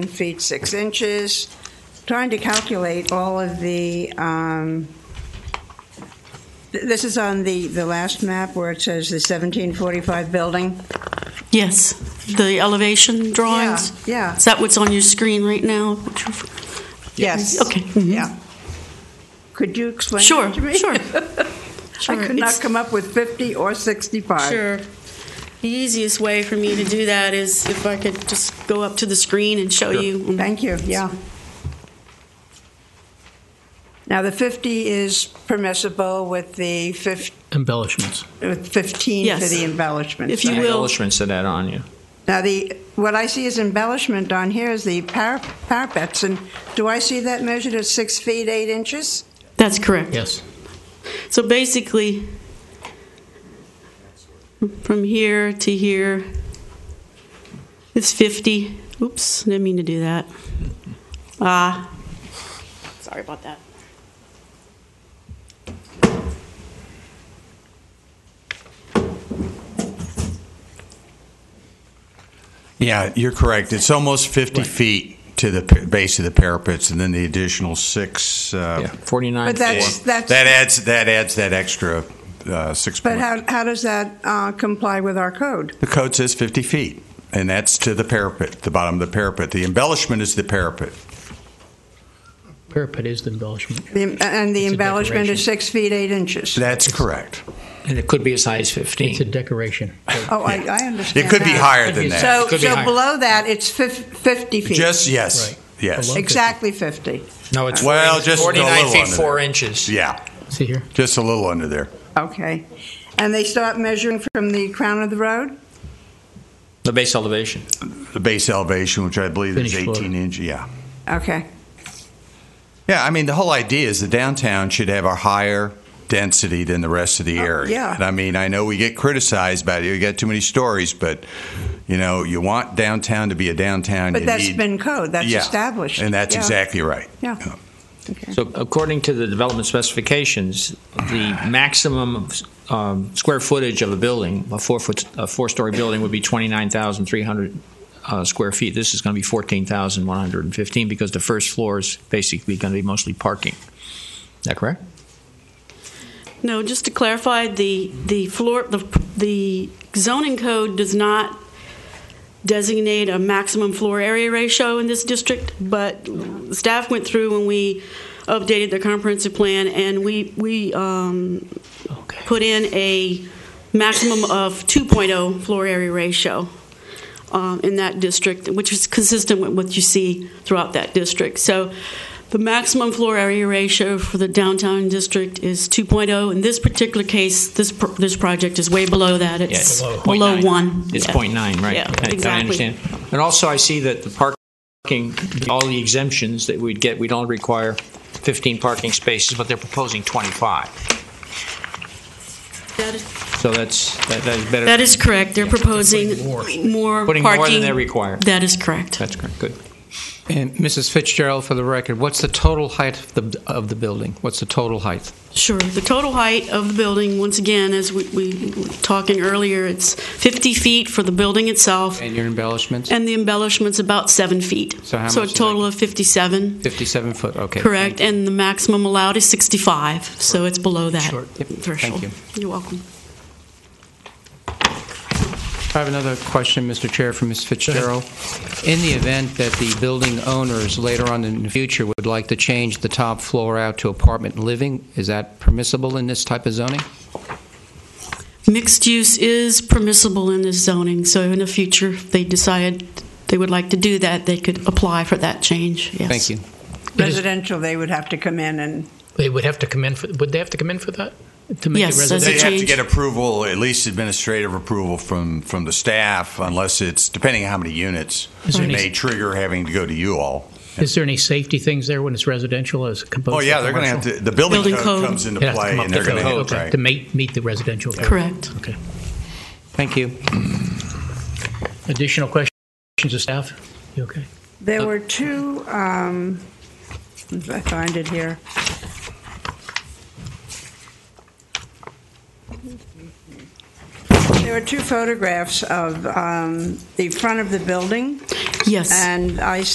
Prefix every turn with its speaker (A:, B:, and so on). A: feet 6 inches. Trying to calculate all of the, um, th- this is on the, the last map where it says the 1745 building.
B: Yes, the elevation drawings?
A: Yeah,
B: Is that what's on your screen right now? Which you-
A: yes.
B: Okay. mhm.
A: Yeah. Could you explain
B: Sure,
A: that to me?
B: sure.
A: I
B: Sure,
A: could not
B: it's-
A: come up with 50 or 65.
B: Sure. The easiest way for me to do that is if I could just go up to the screen and show you.
A: Thank you, yeah. Now, the 50 is permissible with the fif-
C: embellishments.
A: with 15 for
B: Yes.
A: the embellishment.
B: If you
A: So-
B: will.
D: embellishments to that on you.
A: Now, the, what I see as embellishment on here is the par- parapets, and do I see that measured at six feet, eight inches?
B: That's correct.
C: Yes.
B: So basically, from here to here, it's 50. Oops, didn't mean to do that. Ah, sorry about that.
E: Yeah, you're correct. It's almost 50 feet to the pa- base of the parapets, and then the additional six.
D: Yeah,
E: uh,
D: 49.
A: But that's,
E: That
A: that's,
E: adds, that adds that extra uh, six.
A: but
E: point-
A: how, how does that uh, comply with our code?
E: The code says 50 feet, and that's to the parapet, the bottom of the parapet. The embellishment is the parapet.
C: Parapet is the embellishment.
A: The- And the
C: It's a
A: embellishment is
C: decoration.
A: six feet, eight inches?
E: That's correct.
D: and it could be a size
C: It's a
D: 15.
C: decoration.
A: Oh, I, I understand
E: It could be
A: that.
E: higher than that.
A: So,
D: Could be
A: so
D: higher.
A: below that, it's fif- 50 feet?
E: Just, yes,
C: Right.
E: yes.
C: Below-
A: Exactly 50,
D: no, it's
E: Well, just a
D: 49
E: little
D: feet,
E: under
D: 4
E: there.
D: inches.
E: Yeah,
C: See here?
E: just a little under there.
A: okay. And they start measuring from the crown of the road?
D: The base elevation.
E: The base elevation, which I believe is
C: Finished floor.
E: 18 inch, yeah.
A: Okay,
E: Yeah, I mean, the whole idea is the downtown should have a higher density than the rest of the area.
A: Oh, yeah.
E: And I mean, I know we get criticized about it. You got too many stories, but you know, you want downtown to be a downtown.
A: but
E: you
A: that's
E: need-
A: been code, that's
E: Yeah,
A: established.
E: and that's
A: Yeah.
E: exactly right.
A: Yeah.
E: Yeah.
A: Okay.
D: So, according to the development specifications, the maximum um, square footage of a building, a four foot, a four story building, would be 29,300 uh, square feet. This is going to be 14,115 because the first floor is basically going to be mostly parking. Is that correct?
B: No, just to clarify, the, the floor, the, the zoning code does not designate a maximum floor area ratio in this district, but staff went through when we updated the comprehensive plan, and we, we, um,
C: Okay.
B: put in a maximum of 2.0 floor area ratio um, in that district, which is consistent with what you see throughout that district. So the maximum floor area ratio for the downtown district is 2.0. In this particular case, this, pr- this project is way below that. It's
D: Yeah, it's
B: below
D: 0.9.
B: one.
D: It's
B: Yeah.
D: point nine, right?
B: Yeah,
D: I- I
B: exactly.
D: understand. And also, I see that the parking, all the exemptions that we'd get, we'd only require fifteen parking spaces, but they're proposing twenty-five.
B: That is-
D: So that's, that that is better.
B: That is correct. They're proposing
C: more.
B: more
D: Putting
B: parking.
D: more than they require.
B: That is correct.
D: That's correct, good.
F: And Mrs. Fitzgerald, for the record, what's the total height of the, of the building? What's the total height?
B: Sure. The total height of the building, once again, as we, we were talking earlier, it's 50 feet for the building itself,
F: And your embellishments?
B: and the embellishment's about seven feet.
F: So how
B: a
F: much is
B: total
F: it?
B: of 57,
F: 57 foot, okay.
B: correct,
F: Thank
B: and the maximum allowed is 65, so it's below that
F: Short. Yep. Thank
B: threshold.
F: you.
B: You're welcome.
F: you. I have another question, Mr. Chair, from Ms. Fitzgerald. In the event that the building owners later on in the future would like to change the top floor out to apartment living, is that permissible in this type of zoning?
B: Mixed use is permissible in this zoning, so in the future, if they decided they would like to do that, they could apply for that change, yes.
F: Thank you.
A: Residential, they would have to come in and,
C: They would have to come in for, would they have to come in for that? To make
B: Yes,
C: it
B: as a
C: residential?
E: They have to
B: change?
E: get approval, at least administrative approval from from the staff, unless it's depending on how many units.
C: Is there
E: It
C: any-
E: may trigger having to go to you all.
C: Is there any safety things there when it's residential as opposed to
E: Oh yeah, they're going to have
C: commercial?
E: to. The building,
B: Building
E: code,
B: code.
E: comes into
C: They'd have to
E: play,
C: come up
E: and they're
C: with
E: going to
C: code
E: have
C: to-
E: right.
C: To meet, meet the residential.
B: Correct.
C: Okay.
F: Thank you.
C: Additional questions of staff? You okay?
A: there were two, um, if I find it here. There were two photographs of um, the front of the building,
B: Yes.
A: and I